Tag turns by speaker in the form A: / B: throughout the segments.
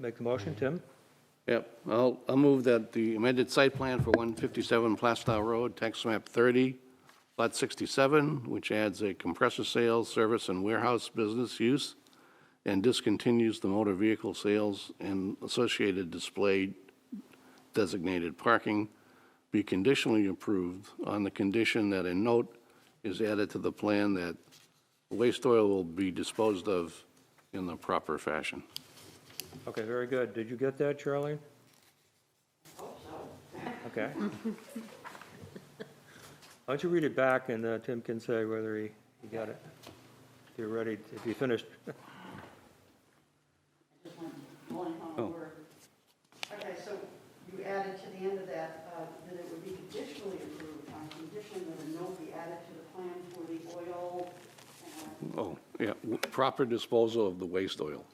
A: Make the motion, Tim?
B: Yep, I'll, I'll move that the amended site plan for 157 Plastow Road, tax map 30, lot 67, which adds a compressor sales, service, and warehouse business use, and discontinues the motor vehicle sales and associated display designated parking, be conditionally approved on the condition that a note is added to the plan that waste oil will be disposed of in the proper fashion.
A: Okay, very good. Did you get that, Charlene?
C: Oh.
A: Okay. Why don't you read it back, and uh, Tim can say whether he, he got it. If you're ready, if you finished.
D: Just one, one
B: Oh.
D: final word. Okay, so you added to the end of that, uh, that it would be conditionally approved on condition that a note be added to the plan for the oil. uh,
B: Oh, yeah, proper disposal of the waste oil.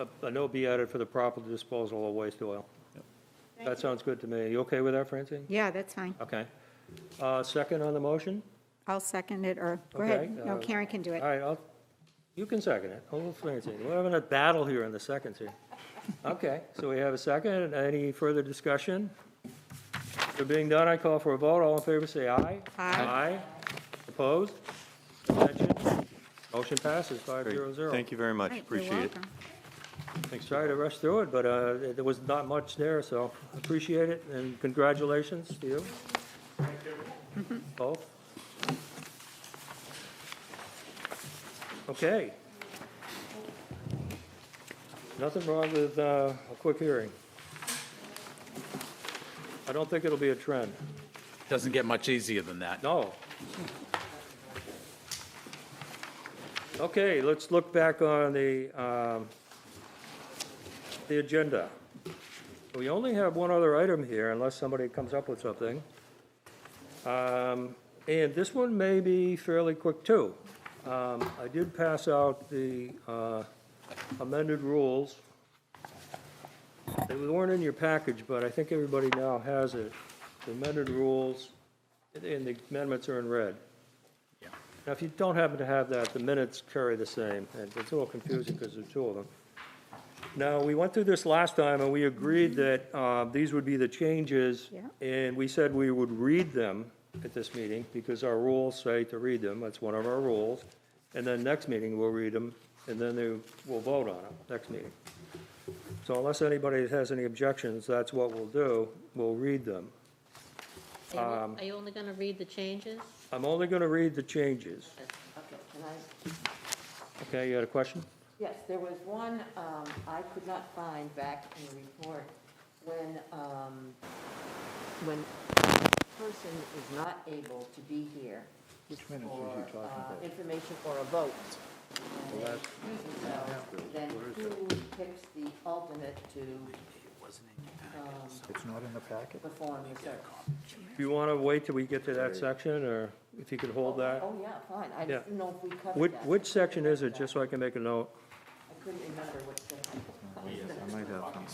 A: A- A note be added for the proper disposal of waste oil.
D: thank
A: That
D: you.
A: sounds good to me. You okay with that, Francine?
E: Yeah, that's fine.
A: Okay. Uh, Second on the motion?
E: I'll second it, or, go
A: Okay,
E: ahead. No,
A: uh,
E: Karen can do
A: All
E: it.
A: right, I'll, you can second it. Oh, Francine, we're having a battle here in the seconds here. Okay, so we have a second. Any further discussion? There being done, I call for a vote. All in favor, say aye.
E: Aye.
A: Aye. Opposed? Abstentions? Motion passes five zero zero.
F: Thank you very much,
E: Great, you're
F: appreciate it.
E: welcome.
A: Sorry to rush through it, but uh, there was not much there, so appreciate it, and congratulations to you. Thank you. Both. Okay. Nothing wrong with uh, a quick hearing. I don't think it'll be a trend.
G: Doesn't get much easier than that.
A: No. Okay, let's look back on the, um, the agenda. We only have one other item here unless somebody comes up with something. Um, And this one may be fairly quick, too. Um, I did pass out the uh, amended rules. They weren't in your package, but I think everybody now has it. The amended rules and the amendments are in red. Now, if you don't happen to have that, the minutes carry the same, and it's a little confusing because there are two of them. Now, we went through this last time, and we agreed that uh, these would be the changes,
E: Yeah.
A: and we said we would read them at this meeting, because our rules say to read them, that's one of our rules, and then next meeting, we'll read them, and then they, we'll vote on them, next meeting. So unless anybody has any objections, that's what we'll do, we'll read them.
H: Are you- Are you only going to read the changes?
A: I'm only going to read the changes.
C: Okay, can I,
A: Okay, you had a question?
C: yes, there was one um, I could not find back in the report when, um, when a person is not able to be here for uh, information or a vote. and they excuse themselves, Then who picks the alternate to um,
I: It's not in the packet?
C: perform the service?
A: Do you want to wait till we get to that section, or if you could hold that?
C: Oh, yeah, fine. I
A: Yeah.
C: just didn't know if we covered
A: Which,
C: that.
A: which section is it, just so I can make a note?
C: I couldn't remember what section.
I: Oh, I might have them.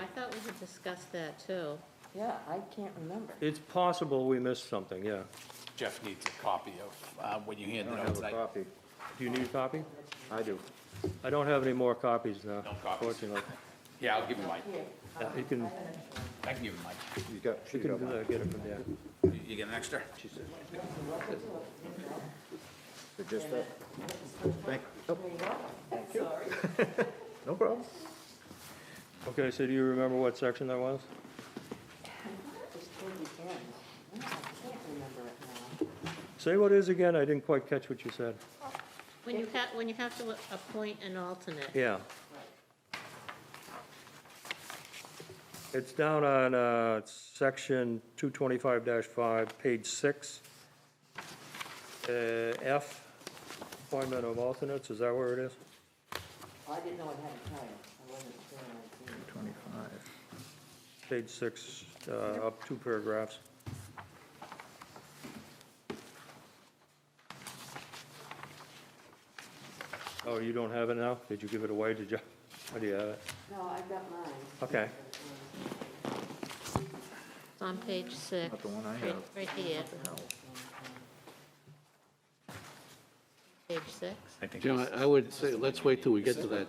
H: I thought we had discussed that, too.
C: Yeah, I can't remember.
A: It's possible we missed something, yeah.
G: Jeff needs a copy of uh, what you handed
I: I
G: out
I: have a
G: tonight.
I: copy.
A: Do you need a copy?
I: I do.
A: I don't have any more copies now,
G: No copies.
A: unfortunately.
G: Yeah, I'll give you mine.
C: Here,
A: Yeah, You can,
G: I can give you mine.
I: You got,
A: you
I: you
A: can
I: got
A: do
I: one.
A: that, get it from there.
G: You- You get an extra?
I: So just that. Thank, oh,
C: sorry.
I: no problem.
A: Okay, so do you remember what section that was?
C: It's toward the end. No, I can't remember it now.
A: Say what is again, I didn't quite catch what you said.
H: When you have, when you have to appoint an alternate.
A: Yeah. It's down on uh, section 225-5, page 6. Uh, F, appointment of alternates, is that where it is?
C: I didn't know it had a title. I wasn't sure when I seen it.
I: Twenty-five.
A: Page 6, uh, up two paragraphs. Oh, you don't have it now? Did you give it away? Did you, or do you have it?
C: No, I got mine.
A: Okay.
H: It's on page six.
I: Not the one I
H: right-
I: have.
H: Right here.
I: No.
H: Page page six?
G: I think
B: Jim, I- I would say, let's wait till we get to that